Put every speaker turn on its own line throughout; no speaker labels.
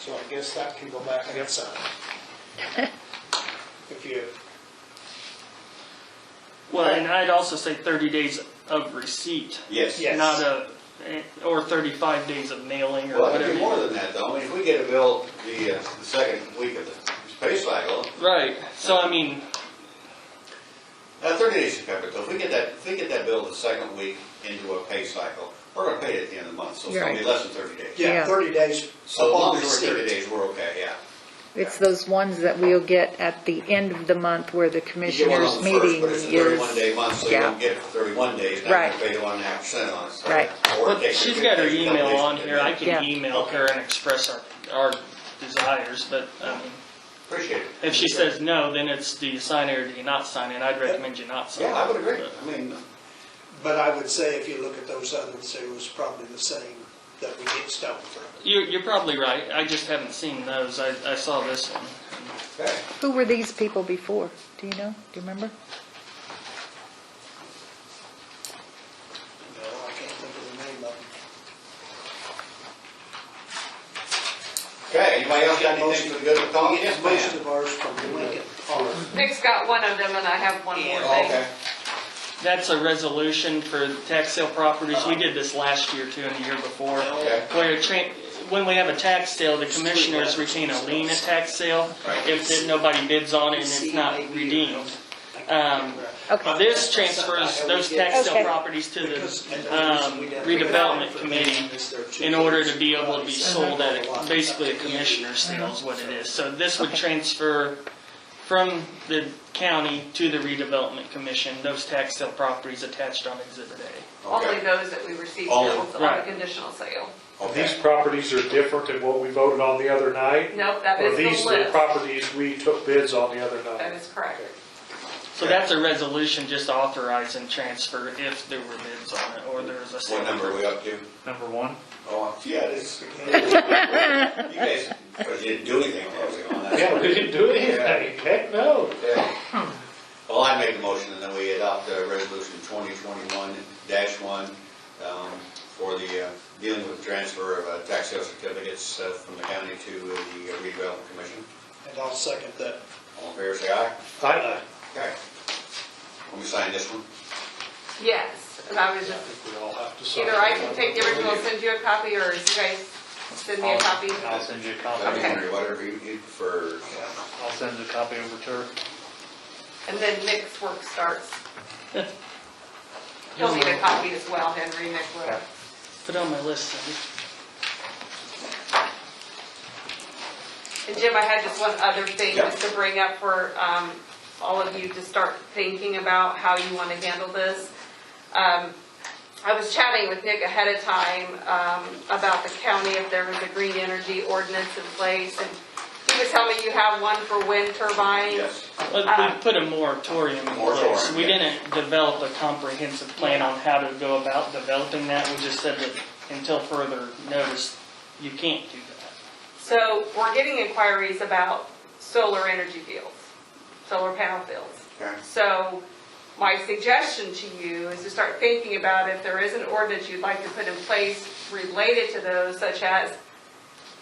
So I guess that can go back and get signed. If you,
Well, and I'd also say 30 days of receipt,
Yes.
Yeah. Yes.
not a, eh, or 35 days of mailing or
Well, it could be more
whatever.
than that, though. I mean, if we get a bill the, uh, the second week of the space cycle,
Right, so I mean,
uh, thirty days to cover it, though. If we get that, if we get that bill the second week into a pay cycle, we're gonna pay it at the end of the month, so it's gonna be
Right.
less than thirty days.
yeah,
Yeah.
30 days
So
upon
long as we're thirty
receipt.
days, we're okay, yeah.
It's those ones that we'll get at the end of the month where the
You get one on
commissioners'
the first,
meeting
But it's a thirty-one
is.
day month, so you
yeah.
don't get it for thirty-one days. Now
Right.
you pay one and a half percent on it. so-
Right.
or
but
take it
she's
to
got her
the
email
company.
on here, I
Yeah.
can email her and express our, our desires, but I mean,
Appreciate it.
if she says no, then it's do you sign it or do you not sign it, I'd recommend you not sign it.
Yeah, I would agree. I mean,
But I would say if you look at those others, it was probably the same that we get stoned from.
You're, you're probably right, I just haven't seen those, I, I saw this one.
okay.
Who were these people before? Do you know? Do you remember?
No, I can't think of the name of them.
Okay, anybody else got anything for the good of the cause? Yes,
Most
ma'am.
of ours from Lincoln are
Nick's got one of them and I have one more
Oh,
thing.
Okay.
That's a resolution for tax sale properties. We did this last year too and the year before.
Okay.
Where it cha- when we have a tax sale, the commissioners retain a lien at tax sale
Right.
if that nobody bids on it and it's not redeemed. Um,
Okay.
This transfers those tax
Okay.
sale properties to the
Because-
um, redevelopment committee in order to be able to be sold at a- basically a commissioner's sale is what it is. So this would
Okay.
transfer from the county to the redevelopment commission, those tax sale properties attached on exhibit A.
Only
Okay.
those that we received
Only-
bills on a
right.
conditional sale.
These
Okay.
properties are different than what we voted on the other night?
Nope, that
Or
is the
these the
list.
properties we took bids on the other
That
night?
is correct.
So that's a resolution just authorizing transfer if there were bids on it or there was a sale.
What number are we up to?
Number one.
Oh, yeah, this. You guys, but you didn't do anything closing on that.
Yeah, we didn't do anything, heck no.
Yeah. Well, I make the motion and then we adopt uh, resolution twenty twenty-one dash one um, for the uh, dealing with transfer of uh, tax sale certificates uh, from the county to the redevelopment commission.
And I'll second that.
All in favor, say aye.
I know.
Okay. Let me sign this one.
Yes, and I was
I
just,
think we all have to sign.
either I can take the original, and send you a copy, or you guys send me a copy.
I'll send you
That'd
a copy.
be
Okay.
under Whatever you need for,
I'll send a copy over to her.
And then Nick's work starts. He'll need a copy as well, Henry, Nick will.
Put on my list, Cindy.
And Jim, I had just one other thing
Yeah.
just to bring up for um, all of you to start thinking about how you want to handle this. Um, I was chatting with Nick ahead of time um, about the county, if there was a green energy ordinance in place. And he was telling me you have one for wind turbines.
yes.
Well, we put a moratorium in place.
Moratorium,
We
yeah.
didn't develop a comprehensive plan on how to go about developing that. We just said that until further notice, you can't do that.
So we're getting inquiries about solar energy fields, solar panel fields.
Okay.
So my suggestion to you is to start thinking about if there is an ordinance you'd like to put in place related to those, such as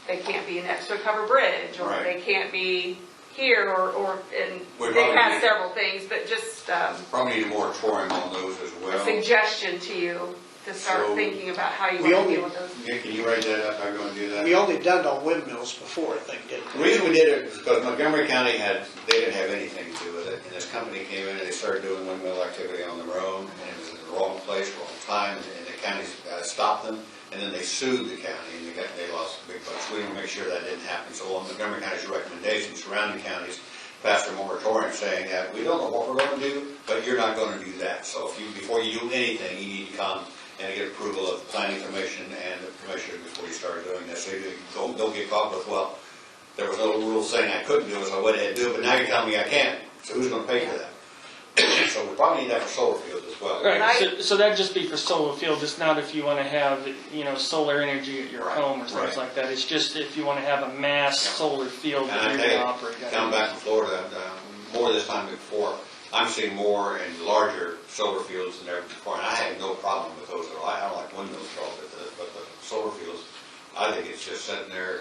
they can't be next to a covered bridge, or
Right.
they can't be here, or, or, and
We
they
probably
have
need-
several things, but just um,
Probably need a moratorium on those as well.
suggestion to you to
So-
start thinking about how you
We
want to
only-
deal with those.
Nick, can you write that up? I'm gonna do that.
We only done on windmills before, I think, didn't
The
we?
reason we did it was because Montgomery County had, they didn't have anything to do with it, and this company came in and they started doing windmill activity on their own, and it was in the wrong place, wrong time, and the county uh, stopped them, and then they sued the county, and they got, they lost big bucks. We didn't make sure that didn't happen, so on Montgomery County's recommendation, surrounding counties passed a moratorium saying that, we don't know what we're gonna do, but you're not gonna do that, so if you, before you do anything, you need to come and get approval of planning commission and the commissioner before you start doing this, so you don't, don't get caught with, well, there was no rule saying I couldn't do it, so I went ahead and do it, but now you're telling me I can't, so who's gonna pay for that? So we probably need that for solar fields as well.
Right,
Right.
so, so that'd just be for solar field, it's not if you wanna have, you know, solar energy at your
Right,
home or
right.
things like that. It's just if you wanna have a mass solar field
And I
that you're gonna
tell
operate.
you,
out of.
down back in Florida, uh, more this time than before, I'm seeing more and larger solar fields than ever before, and I have no problem with those at all. I I like windmills, at all, but the, but the solar fields, I think it's just sitting there